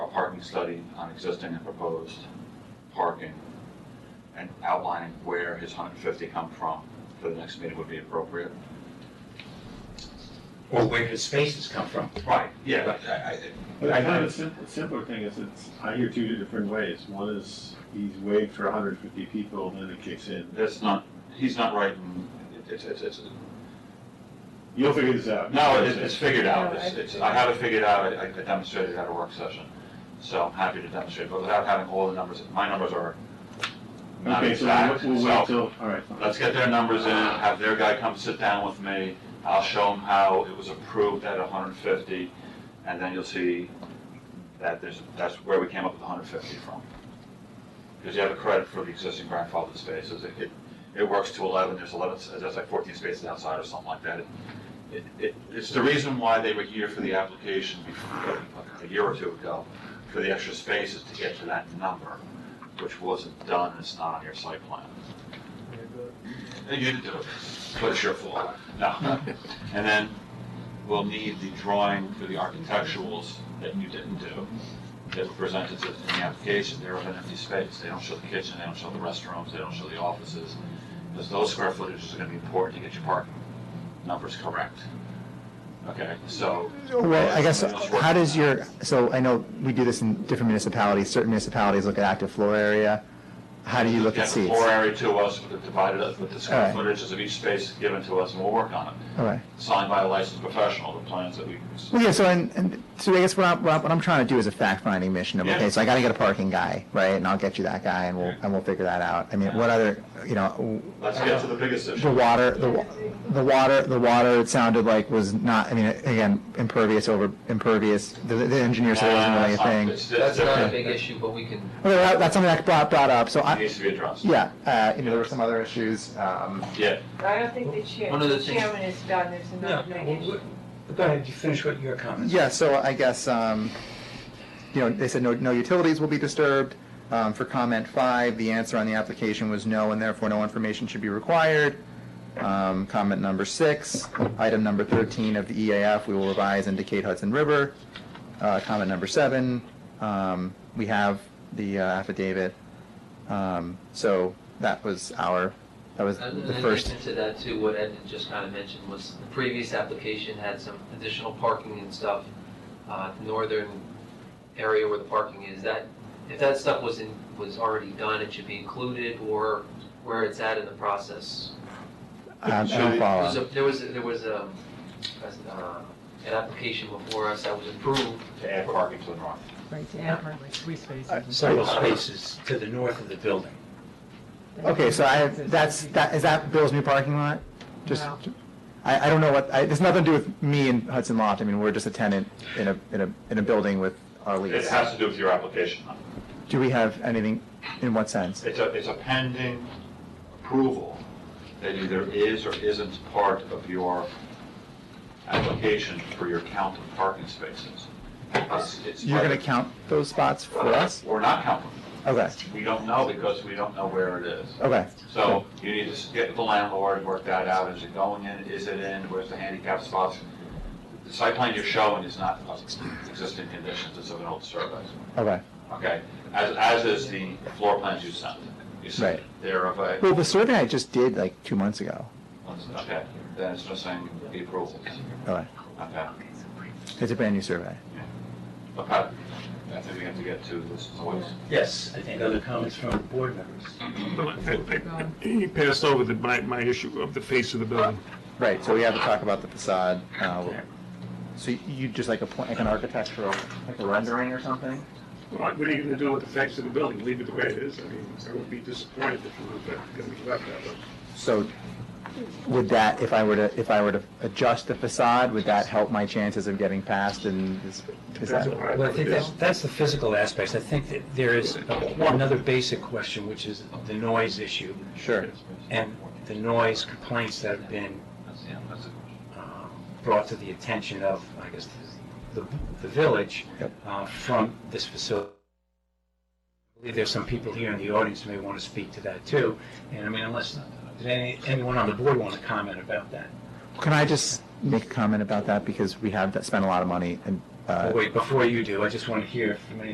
zoning study on existing and proposed parking and outlining where his hundred and fifty come from for the next meeting would be appropriate. or where his spaces come from. Right, yeah, but I, But I- I find the simpler, simpler thing is it's, I hear two different ways. One is he's waived for hundred fifty people, and then it kicks in. that's not, he's not right, and it's, it's, it's, You'll figure this out. no, it's, it's figured out, it's, it's, I have it figured out, I I demonstrated at a work session, so I'm happy to demonstrate, but without having all the numbers, my numbers are not Okay, so exact, we'll, we'll wait so till, all right. fine. let's get their numbers in, have their guy come sit down with me, I'll show him how it was approved at hundred and fifty, and then you'll see that there's, that's where we came up with hundred and fifty from. Because you have a credit for the existing grandfathered spaces, it, it, it works to eleven, there's eleven, there's like fourteen spaces outside or something like that. It- It, it, it's the reason why they were here for the application before, a year or two ago, for the extra spaces to get to that number, which wasn't done, it's not on your site plan. And You didn't do it, but it's your fault. No. And then we'll need the drawing for the architecturals that you didn't do, that were presented to- in the application. They're of an empty space. They don't show the kitchen, they don't show the restrooms, they don't show the offices. Because those square footages are gonna be important to get your parking numbers correct. Okay, so, Well, I guess, how does your, so I know we do this in different municipalities, certain municipalities look at active floor area. How do you look get at the seats? floor area to us, with the divided, up with the square All right. footages of each space given to us, and we'll work on it. All right. Signed by a licensed professional, the plans that we Well, yeah, so, and, and, so I guess what I'm, what I'm- what I'm trying to do is a fact-finding mission of, Yeah. okay, so I gotta get a parking guy, right? And I'll get you that guy and we'll, and we'll figure that out. I mean, what other, you know, w- Let's get to the biggest issue. the water, the, wa- the water, the water, it sounded like was not, I mean, again, impervious over, impervious. The, the engineer said it wasn't really a Nah, thing. Uh, it's- it's That's not a different. big issue, but we can, Okay, that- that's something that brought, brought up, so It I, needs to be addressed. yeah, uh, you know, there were some other issues, um, Yeah, I don't think the chair, One of the the things- chairman is done, there's No, another well, nine issue. we- go ahead, you finish what your comments. Yeah, so I guess, um, you know, they said no, no utilities will be disturbed. Um, for comment five, the answer on the application was no, and therefore no information should be required. Um, comment number six, item number thirteen of the EAF, we will revise indicate Hudson River. Uh, comment number seven, um, we have the uh, affidavit. Um, so that was our, that was and the in first. addition to that too, what Ed had just kind of mentioned was the previous application had some additional parking and stuff, uh, northern area where the parking is, that, if that stuff was in, was already done, it should be included or where it's at in the process. Um, Should we- There was, follow. a- there was, a- there was a, um, uh, an application before us that was approved, to add parking to the north. Right, to add part, like three spaces. Several spaces to the north of the building. Okay, so I have, that's, that, is that Bill's new parking lot? Just, No. I, I don't know what, I, there's nothing to do with me and Hudson Loft, I mean, we're just a tenant in a, in a, in a building with our It lease. has to do with your application. Do we have anything, in what sense? It's a, it's a pending approval that either is or isn't part of your application for your count of parking spaces. It's- it's You're gonna whether- count those spots for us? Or not count them. Okay, We don't know because we don't know where it is. okay, So you need to s- get with the landlord, work that out, is it going in, is it in, where's the handicap spots? The site plan you're showing is not of existing conditions, it's of an old survey, okay. okay? As, as is the floor plans you sent, you sent, Right. they're of a, Well, the survey I just did like two months ago, okay, then it's missing the approvals, okay, okay? it's a brand new survey. Okay, I think we have to get to this voice. Yes, I think other comments from board members. I- I- He passed over the, my, my issue of the face of the building. Right, so we have to talk about the facade, uh, so you just like a, pla- like an architectural, like a rendering or something? What what are you gonna do with the face of the building? Leave it the way it is? I mean, I would be disappointed if it was gonna be left that way. So would that, if I were to, if I were to adjust the facade, would that help my chances of getting past and is, is Depends that? on what Well, I think that's, it that's the physical aspects. I think that there is another basic question, which is the noise issue Sure. and the noise complaints that have been That's, yeah, that's the question. um, brought to the attention of, I guess, the, the village Yep. uh, from this facility. I believe there's some people here in the audience who may want to speak to that too. And I mean, unless, does any, anyone on the board want to comment about that? Can I just make a comment about that because we have spent a lot of money and, uh, Wait, before you do, I just want to hear from any